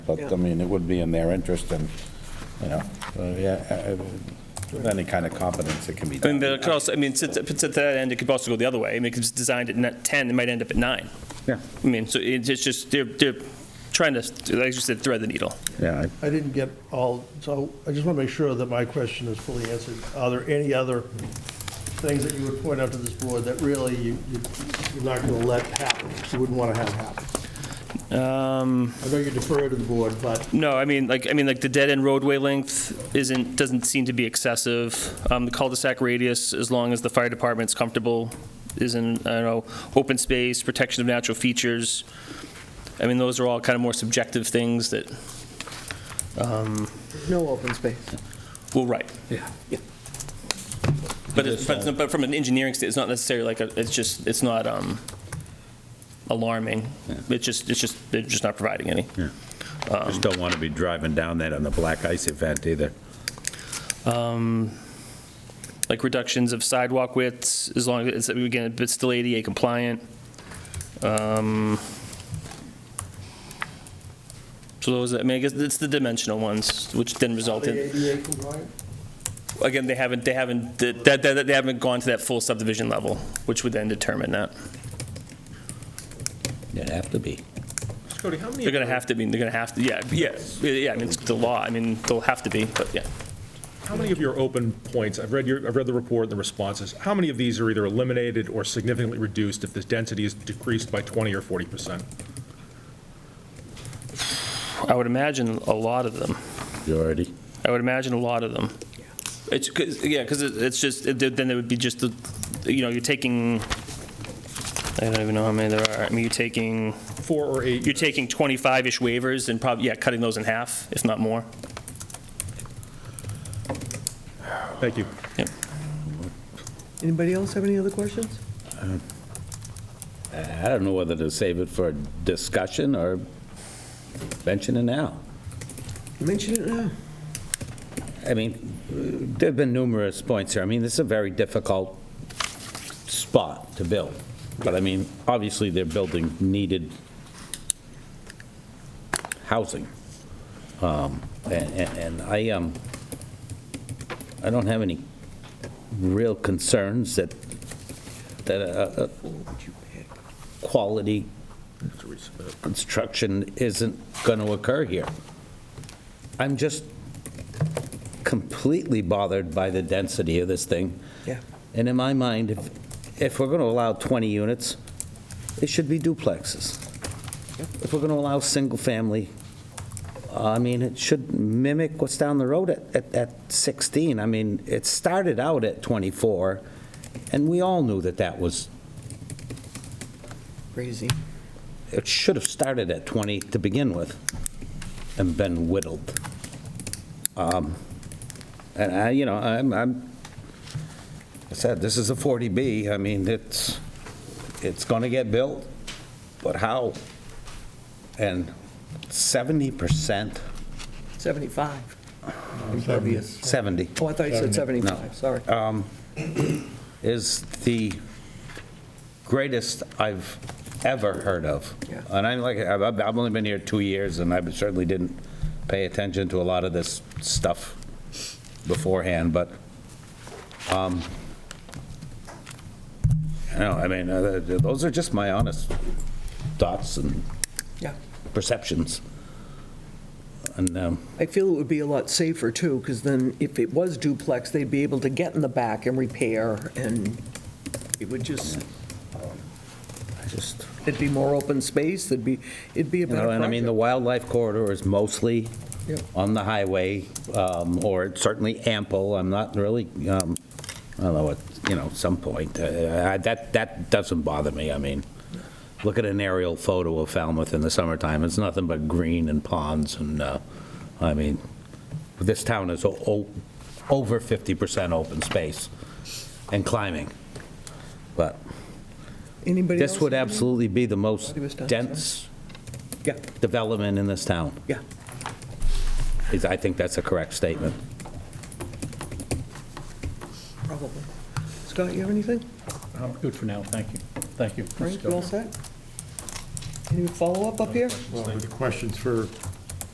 But, I mean, it would be in their interest and, you know, uh, yeah, uh, with any kind of competence, it can be I done. mean, but it could also, I mean, since, since at that end, it could also go the other way. I mean, if it's designed at net 10, it might end up at 9. Yeah, I mean, so it's it's just, they're, they're trying to, like you said, thread the needle. yeah. I- I didn't get all, so I just want to make sure that my question is fully answered. Are there any other things that you would point out to this board that really you, you- you're not going to let happen, you wouldn't want to have happen? Um, I know you defer to the board, but No, I mean, like, I mean, like the dead-end roadway length isn't, doesn't seem to be excessive. Um, The cul-de-sac radius, as long as the fire department's comfortable, is in, I don't know, open space, protection of natural features. I mean, those are all kind of more subjective things that, No open space. well, right. Yeah. But it's, but it's- but from an engineering state, it's not necessarily like, a- it's just, it's not um, alarming. It's just, it's just, they're just not providing any. Just don't want to be driving down that on the black ice event either. like reductions of sidewalk widths, as long as, it's again, it's still ADA compliant. Um, So those, I mean, I guess it's the dimensional ones, which then result the in, ADA compliant? again, they haven't, they haven't, that, that- that, they haven't gone to that full subdivision level, which would then determine that. It'd have to be. Cody, how many? They're gonna have to be, they're gonna have to, yeah, yeah, yeah, I mean, it's the law, I mean, they'll have to be, but yeah. How many of your open points, I've read your, I've read the report and the responses, how many of these are either eliminated or significantly reduced if this density is decreased by 20 or 40%? I would imagine a lot of them. You already? I would imagine a lot of them. It's, 'cause- yeah, because it's just, it- then it would be just, the you know, you're taking, I don't even know how many there are. I mean, you're taking, Four or eight? you're taking 25-ish waivers and probably, yeah, cutting those in half, if not more. Thank you. Yep. Anybody else have any other questions? I don't know whether to save it for discussion or mention it now. Mention it now. I mean, there've been numerous points here. I mean, this is a very difficult spot to build. But I mean, obviously, they're building needed housing. Um, And and- and I, um, I don't have any real concerns that, that a- a quality construction isn't going to occur here. I'm just completely bothered by the density of this thing. Yeah. And in my mind, if, if we're going to allow 20 units, it should be duplexes. If we're going to allow single-family, I mean, it should mimic what's down the road at, at, at 16. I mean, it started out at 24, and we all knew that that was, Crazy. it should have started at 20 to begin with and been whittled. Um, And I, you know, I'm, I'm, I said, this is a 40B, I mean, it's, it's going to get built, but how? And 70%, 75. Impervious. 70, Oh, I thought you said 75, sorry. Uh. is the greatest I've ever heard of. Yeah. And I'm like, I've I've only been here two years, and I certainly didn't pay attention to a lot of this stuff beforehand, but, um, I don't know, I mean, uh, th- those are just my honest thoughts and Yeah. perceptions. And, um, I feel it would be a lot safer, too, because then if it was duplex, they'd be able to get in the back and repair, and it would just, I just, it'd be more open space, there'd be, it'd be a you better know, and I mean, the project. wildlife corridor is mostly Yep. on the highway, um, or certainly ample, I'm not really, um, I don't know, at, you know, some point, uh, I- that, that doesn't bother me, I mean, look at an aerial photo of Falmouth in the summertime, it's nothing but green and ponds, and, uh, I mean, this town is o- o- over 50% open space and climbing, but Anybody else? this would absolutely be the most He was done, sorry. dense Yeah, development in this town. yeah. Is- I think that's a correct statement. Probably. Scott, you have anything? I'm Good for now, thank you. Thank you. Frank, you all set? Any follow-up up here? Well, the questions for